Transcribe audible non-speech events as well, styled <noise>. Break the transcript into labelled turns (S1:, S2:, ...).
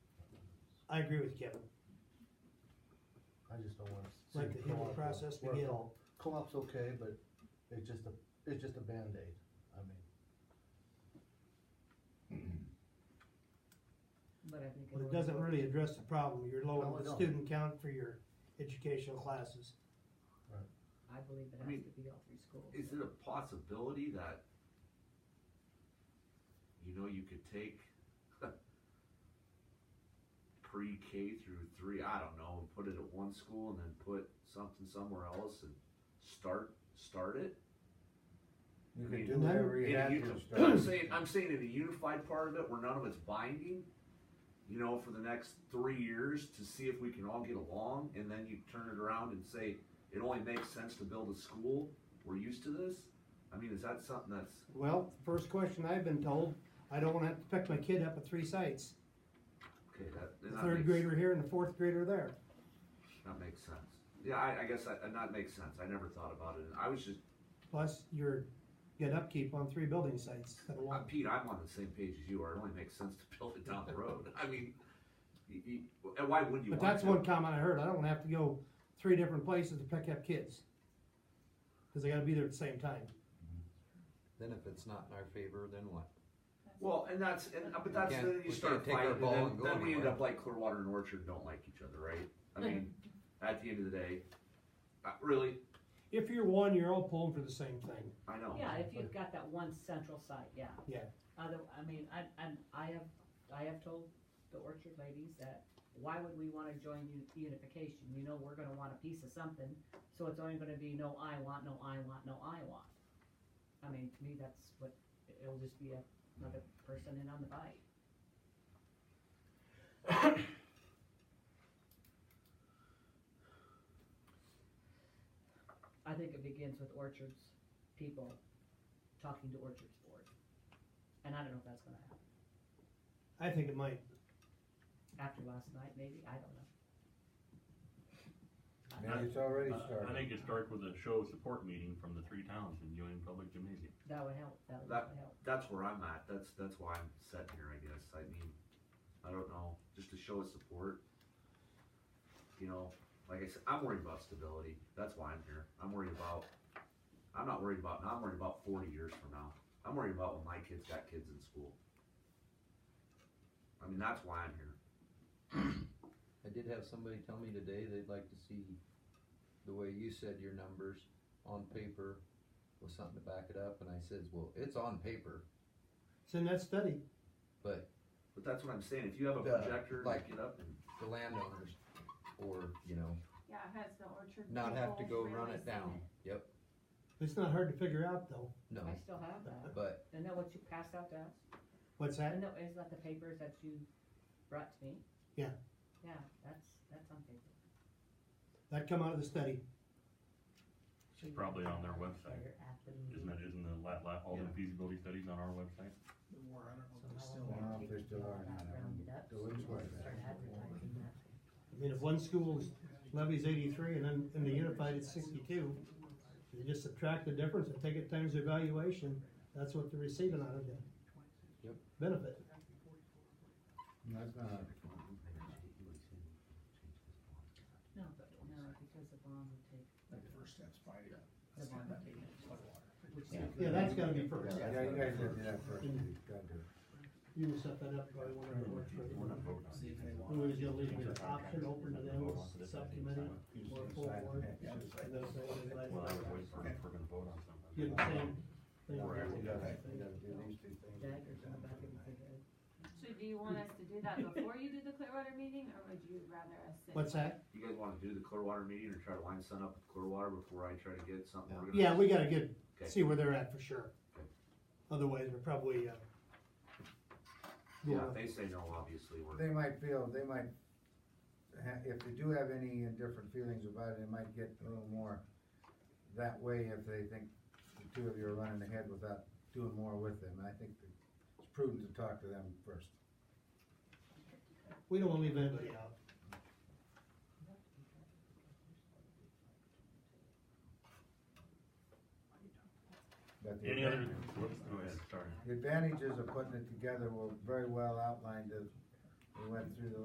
S1: I agree with Kevin,
S2: I just don't wanna. see
S1: Like the healing
S2: co-op,
S1: process
S2: where
S1: begin.
S2: co- Co-op's okay, but it's just a, it's just a Band-Aid, I mean,
S3: But I think.
S1: but it
S3: would
S1: doesn't
S3: work.
S1: really address the problem, you're
S2: No,
S1: lowering
S2: it
S1: the
S2: don't.
S1: student count for your educational classes.
S3: I believe it
S4: I
S3: has
S4: mean,
S3: to be all through school.
S4: Is it a possibility that, you know, you could take <laughs> pre-K through three, I don't know, and put it at one school and then put something somewhere else and start, start it?
S5: You
S4: I mean,
S5: could do
S1: and then-
S5: whatever you
S4: In a
S5: had
S4: uni-
S5: to
S4: <clears throat> I'm
S5: start.
S4: saying, I'm saying in a unified part of it where none of it's binding, you know, for the next three years to see if we can all get along and then you turn it around and say, it only makes sense to build a school, we're used to this? I mean, is that something that's,
S1: Well, first question I've been told, I don't wanna have to pick my kid up at three sites,
S4: okay, that,
S1: the
S4: that
S1: third
S4: makes-
S1: grader here and the fourth grader there.
S4: That makes sense. Yeah, I, I guess that, that makes sense. I never thought about it. I was just,
S1: Plus, you're getting upkeep on three building sites instead of
S4: uh,
S1: one.
S4: Pete, I'm on the same page as you are. It only makes sense to <laughs> build it down the road. <laughs> I mean, you, you, and why wouldn't you
S1: But
S4: want
S1: that's
S4: to?
S1: one comment I heard, I don't have to go three different places to pick up kids. Cause they gotta be there at the same time.
S6: Then if it's not in our favor, then what?
S4: Well, and that's, and, uh, but that's,
S6: can't-
S4: then you
S6: we
S4: start
S6: can't take our
S4: fighting, and
S6: ball
S4: then,
S6: and go
S4: then we end
S6: anywhere.
S4: up like Clearwater and Orchard don't like each other, right? I mean, at the end of the day, uh, really,
S1: If you're one, you're all pulling for the same thing.
S4: I know.
S3: Yeah, if you've got that one central site, yeah.
S1: Yeah.
S3: Other, I mean, I, I, I have, I have told the Orchard ladies that, why would we wanna join u- unification? You know, we're gonna want a piece of something, so it's only gonna be no I want, no I want, no I want. I mean, to me, that's what, it'll just be a- another person in on the bike. <coughs> I think it begins with Orchard's people talking to Orchard's board. And I don't know if that's gonna happen.
S1: I think it might.
S3: After last night, maybe, I don't know. I-
S5: Now it's already started.
S7: I think it starts with a show of support meeting from the three towns in Union Public Gymnasium.
S3: That would help, that would
S4: That-
S3: help.
S4: That's where I'm at. That's, that's why I'm sitting here, I guess. I mean, I don't know, just to show his support. You know, like I said, I'm worried about stability. That's why I'm here. I'm worried about, I'm not worried about now. I'm worried about 40 years from now. I'm worried about when my kids got kids in school. I mean, that's why I'm here.
S6: I did have somebody tell me today they'd like to see the way you said your numbers on paper with something to back it up, and I says, well, it's on paper,
S1: It's in that study.
S6: but
S4: But that's what I'm saying. If you have a
S6: Yeah,
S4: projector,
S6: like-
S4: get up and
S6: the landowners, or, you know,
S8: Yeah, it has the orchard.
S6: not have to
S8: people
S6: go run
S8: releasing
S6: it down. Yep,
S1: It's not hard to figure out though.
S6: no,
S3: I still
S9: <laughs>
S3: have that.
S6: but
S3: Isn't that what you passed out to us?
S1: What's that?
S3: Isn't that, isn't that the papers that you brought to me?
S1: Yeah.
S3: Yeah, that's, that's on paper.
S1: That come out of the study.
S3: So you-
S7: probably on their website.
S3: You're at the
S7: Isn't
S3: meeting.
S7: that, isn't the la- la- all the
S4: Yeah.
S7: feasibility studies on our website?
S3: So
S5: I
S3: how
S5: don't
S3: are
S5: know
S3: we
S5: if they
S3: gonna
S5: still
S3: get all
S5: are or
S3: that
S5: not.
S3: rounded up?
S5: Go into
S3: So we
S5: it.
S3: can Start advertising that.
S1: I mean, if one school's levy's eighty-three and then in the unified it's sixty-two, you just subtract the difference and take it times their valuation, that's what they're receiving out of the
S6: Yep.
S1: benefit.
S5: That's not,
S3: No, but, no, because the bond would take.
S9: Like the first steps by the.
S3: The bond would be.
S1: Yeah, that's gotta be first.
S5: yeah, yeah, you guys did that first, you gotta do it.
S1: You can set that up, probably whenever it works for
S7: We're not
S1: you.
S7: voting on it.
S1: Who is gonna leave the option open to them, subcommittee, or full board?
S5: Yeah.
S1: And they'll say, "Everybody
S7: Well, I would
S1: likes
S7: wait for it if we're gonna vote on something.
S1: it." Get the same thing.
S5: Or you gotta, you gotta do these two things.
S3: Daggers in the back of his head.
S8: So do you want us to do that before you do the Clearwater meeting, or would you rather us sit?
S1: What's that?
S4: you guys want to do the Clearwater meeting or try to line something up with Clearwater before I try to get something organized?
S1: Yeah, we gotta get,
S4: Okay.
S1: see where they're at for sure.
S4: Okay.
S1: Otherwise, we're probably, uh,
S4: Yeah, if they say no, obviously, we're.
S5: They might feel, they might, ha- if they do have any indifferent feelings about it, it might get a little more that way if they think the two of you are running ahead without doing more with them. I think that it's prudent to talk to them first.
S1: we don't wanna leave anybody out.
S5: But the
S7: Any other, whoops, go ahead, sorry.
S5: The advantages of putting it together were very well outlined as we went through the